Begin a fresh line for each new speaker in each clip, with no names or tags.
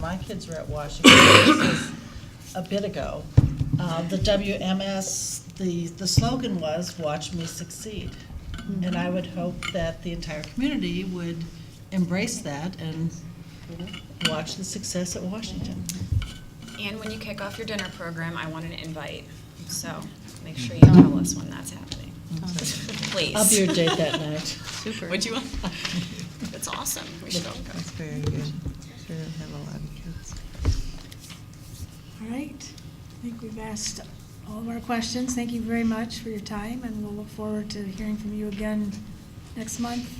my kids were at Washington, this was a bit ago, uh, the WMS, the, the slogan was, watch me succeed. And I would hope that the entire community would embrace that and watch the success at Washington.
And when you kick off your dinner program, I want an invite, so make sure you tell us when that's happening. Please.
I'll be your date that night.
Super. Would you? That's awesome, we should all go.
That's very good. Sure don't have a lot of kids.
All right, I think we've asked all of our questions. Thank you very much for your time, and we'll look forward to hearing from you again next month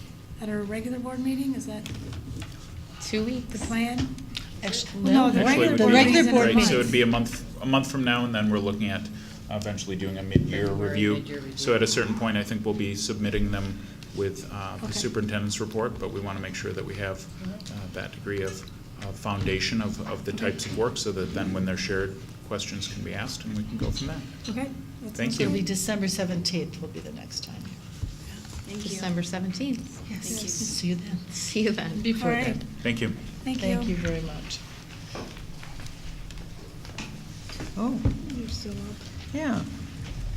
at our regular board meeting. Is that
Two
the
weeks.
plan?
Actually,
No, the
Actually,
regular
it
the
board
would
regular
be,
meeting's in a
board
right, so
meeting.
it'd be a month, a month from now, and then we're looking at eventually doing a mid-year
February
review.
mid-year review.
So at a certain point, I think we'll be submitting them with uh, the
Okay.
superintendent's report, but we want to make sure that we have uh, that degree of of foundation of, of the types of work, so that then when they're shared, questions can be asked, and we can go from there.
Okay. that
Thank
sounds
you.
It'll
good.
be December seventeenth will be the next time.
December 17th.
Yes.
See you then.
See you then.
Before
All right.
then.
Thank you.
Thank
Thank you
you.
very much.
Oh,
You're still up,
yeah,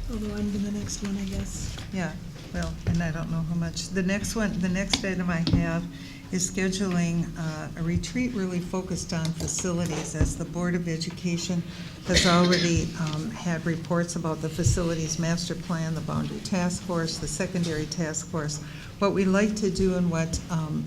although I'm the next one, I guess.
yeah. Well, and I don't know how much. The next one, the next item I have is scheduling uh, a retreat really focused on facilities, as the Board of Education has already um, had reports about the facilities master plan, the boundary task force, the secondary task force. What we like to do and what um,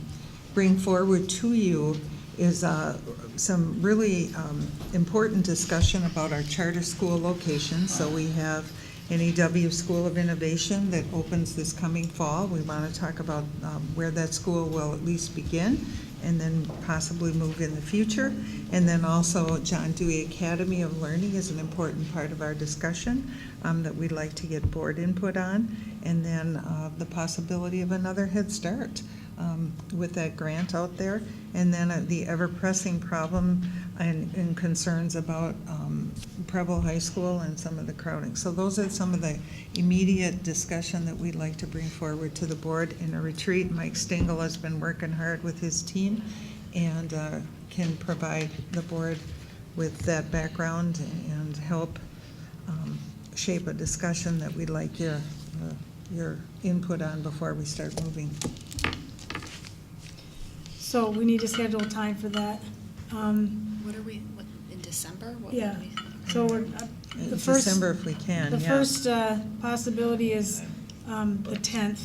bring forward to you is uh, some really um, important discussion about our charter school locations. So we have NEW School of Innovation that opens this coming fall. We want to talk about um, where that school will at least begin and then possibly move in the future. And then also John Dewey Academy of Learning is an important part of our discussion um, that we'd like to get board input on. And then uh, the possibility of another Head Start um, with that grant out there. And then uh, the ever-pressing problem and and concerns about um, Preble High School and some of the crowding. So those are some of the immediate discussion that we'd like to bring forward to the board in a retreat. Mike Stengel has been working hard with his team and uh, can provide the board with that background and help um, shape a discussion that we'd like your, uh, your input on before we start moving.
So we need to schedule time for that. Um,
What are we, what, in December? What
Yeah.
would we-
So we're, uh, the first.
December if we can,
The
yeah.
first uh, possibility is um, the 10th,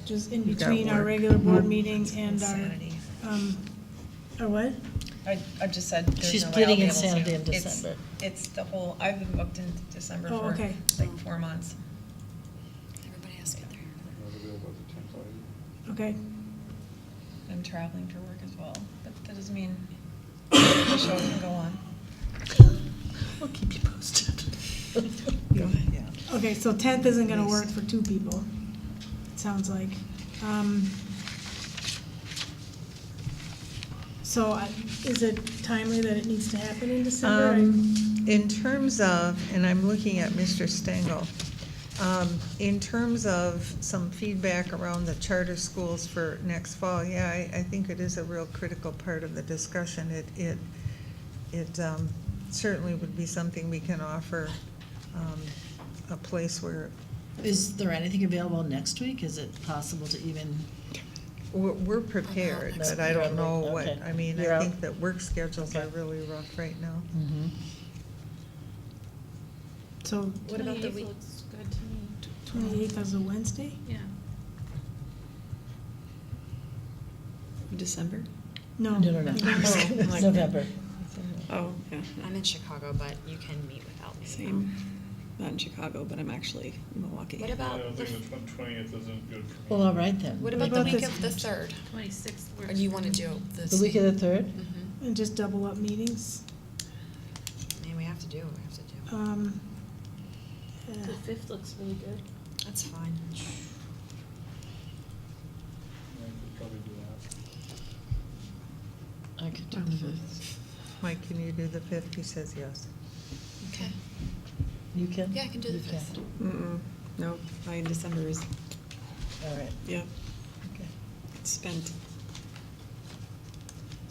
which is in
You got
between our
work. Mm-hmm.
regular board meeting and our, um, our what?
I, I just said. there's
She's
no way I'll
pleading
be able to.
insanity in
It's-
December.
It's the whole, I've been booked in December
Oh,
for
okay.
like four months.
Everybody has to get there.
Okay,
I'm traveling for work as well, but that doesn't mean the show can go on.
We'll keep you posted.
Yeah.
okay, so 10th isn't going to
Yes.
work for two people, it sounds like. Um, So I- is it timely that it needs to happen in December?
Um, In terms of, and I'm looking at Mr. Stengel, um, in terms of some feedback around the charter schools for next fall, yeah, I, I think it is a real critical part of the discussion. It, it, it um, certainly would be something we can offer, um, a place where,
Is there anything available next week? Is it possible to even,
we're, we're prepared, but I don't know what, I mean,
You're
I
out.
think that work schedules are
Okay.
really rough right now.
Mm-hmm.
So
What about the week?
28th is a Wednesday?
December?
No.
no, no, no,
Oh,
November?
Oh, yeah,
I'm in Chicago, but you can meet without me. Um,
Not in Chicago, but I'm actually in Milwaukee.
What
I
about
don't
Uh, the,
think the twentieth isn't good for me.
Well, all right then.
what about the
about
week
this-
of the third?
Twenty-sixth.
Or do you want to do this?
The week of the third?
Mhm.
And just double up meetings?
I mean, we have to do, what we have to do.
Um, uh, yeah.
fifth looks really good.
That's fine.
I could probably do that.
I could do the
Mm-hmm.
fifth.
Mike, can you do the fifth? He says yes.
Okay.
You can?
Yeah, I can do the
You can.
fifth.
Mm-mm, no, I, in December is,
All right.
yeah,
Okay.
spent